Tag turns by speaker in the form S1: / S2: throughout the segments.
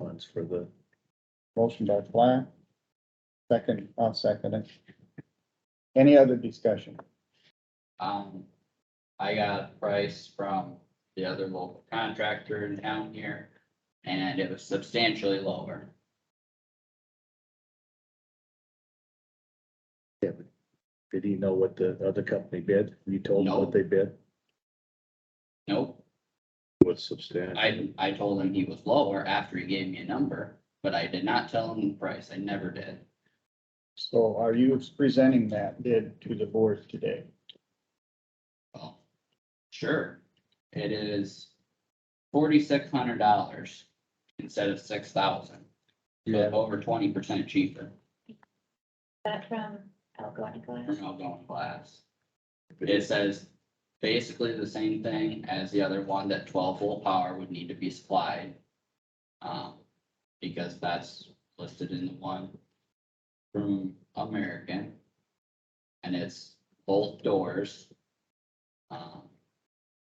S1: funds for the,
S2: Motion by Fly. Second, I'll second it. Any other discussion?
S3: Um, I got a price from the other local contractor in town here, and it was substantially lower.
S1: did he know what the other company bid? You told him
S3: No.
S1: what they bid?
S3: Nope,
S1: What's substantial?
S3: I, I told him he was lower after he gave me a number, but I did not tell him the price, I never did.
S2: So are you presenting that bid to the board today?
S3: Well, sure, it is forty-six hundred dollars instead of six thousand. So
S2: Yeah.
S3: it's over twenty percent cheaper
S4: That from Algonquin
S3: from
S4: Glass.
S3: outgoing glass. It says basically the same thing as the other one, that twelve volt power would need to be supplied. Um, because that's listed in the one from American. And it's both doors. Um,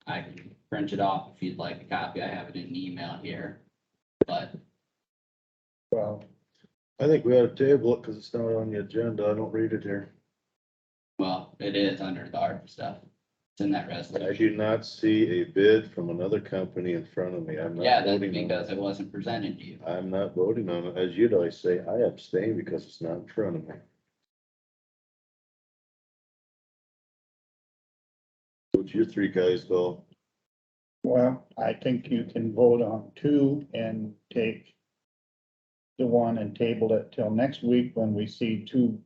S3: I can print it off if you'd like a copy, I have it in email here, but
S2: Well,
S1: I think we ought to table it because it's not on the agenda. I don't read it here.
S3: Well, it is under the ARPA stuff. It's in that
S5: I
S3: resolution.
S5: do not see a bid from another company in front of me. I'm
S3: Yeah,
S5: not
S3: that's
S5: voting on
S3: because
S5: it.
S3: it wasn't presented to you.
S5: I'm not voting on it. As you'd always say, I abstain because it's not in front of me. What's your three guys go?
S2: well, I think you can vote on two and take the one and table it till next week when we see two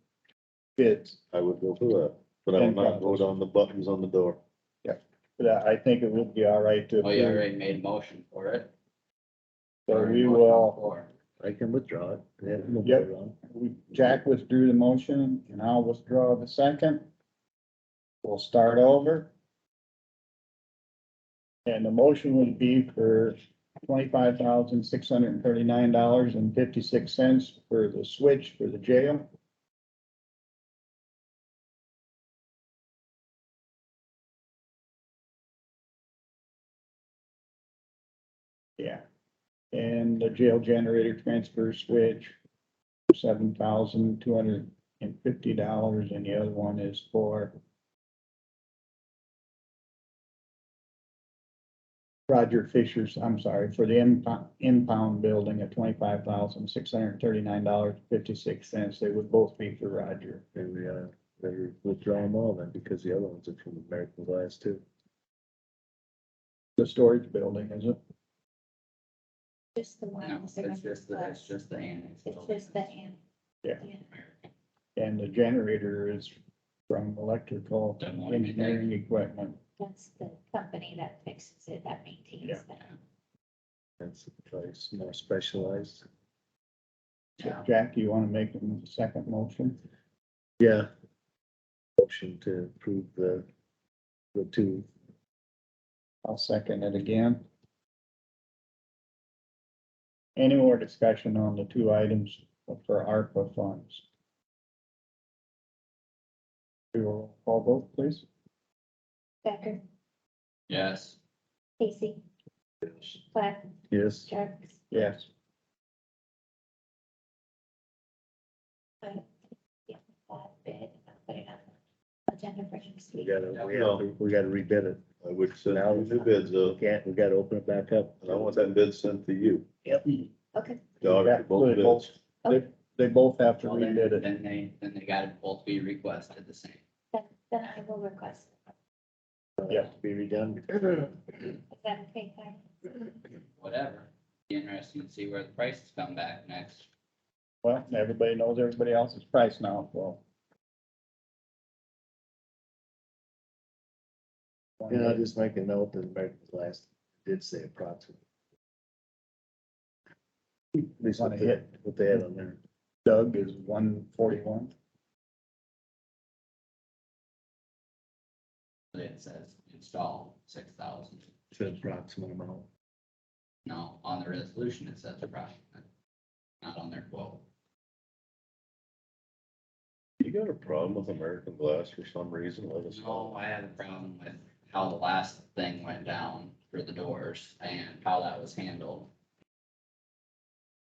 S2: bids.
S5: I would go for that, but I will not vote on the buttons on the door.
S2: But I think it would be all right to.
S3: Oh, you already made a motion for it.
S2: So
S3: Already
S2: we
S3: motioned
S2: will,
S3: for it.
S1: I can withdraw it. They have no
S2: Yep.
S1: vote on it.
S2: we- Jack withdrew the motion and I'll withdraw the second. We'll start over. And the motion would be for twenty-five thousand, six hundred and thirty-nine dollars and fifty-six cents for the switch for the jail. Yeah. And the jail generator transfer switch, seven thousand, two hundred and fifty dollars, and the other one is for Roger Fisher's, I'm sorry, for the impound, impound building at twenty-five thousand, six hundred and thirty-nine dollars, fifty-six cents. They would both be for Roger.
S1: Maybe, uh, better withdraw them all then because the other ones are from American Glass too.
S2: The storage building, is it?
S4: Just the one.
S3: No,
S4: that's
S3: it's
S4: around
S3: just, the-
S4: glass.
S3: it's just the annex.
S4: It's just the hand.
S2: Yeah. And the generator is from electrical
S3: Don't want to be there.
S2: engineering equipment.
S4: That's the company that fixes it, that
S2: Yeah.
S4: maintains that.
S1: That's the price, more specialized.
S3: Yeah.
S2: Jack, do you want to make a second motion?
S1: Yeah. Motion to approve the, the two.
S2: I'll second it again. Any more discussion on the two items for ARPA funds? Do a roll call vote, please.
S4: Becker,
S3: Yes,
S4: Casey, Platt,
S1: Yes.
S4: Jerks.
S2: Yes.
S4: That bid, I'll put it on the agenda for next
S1: We
S4: week.
S1: gotta, we gotta, we gotta rebid it.
S5: I would send out new bids though,
S1: We can't, we gotta open it back up.
S5: and I want that bid sent to you.
S4: Okay, Oh,
S5: Dog, both bids.
S2: They, they both have to
S3: well, then,
S2: rebid it.
S3: then they, then they got to both be requested the same.
S4: then, then I will request.
S2: Yeah.
S1: To Be redone.
S4: Is that okay, Karen?
S3: Whatever. Be interesting to see where the prices come back next.
S2: Well, everybody knows everybody else's price now, so.
S1: And I'll just make a note that American Glass did say approximately. At least what
S2: Wanna
S1: they,
S2: hit.
S1: what they had on there.
S2: Doug is one forty-one.
S3: It says install six thousand.
S1: Said approximate amount.
S3: No, on the resolution, it says approximate. Not on their quote.
S5: You got a problem with American Glass for some reason, let us know.
S3: No, I had a problem with how the last thing went down for the doors and how that was handled.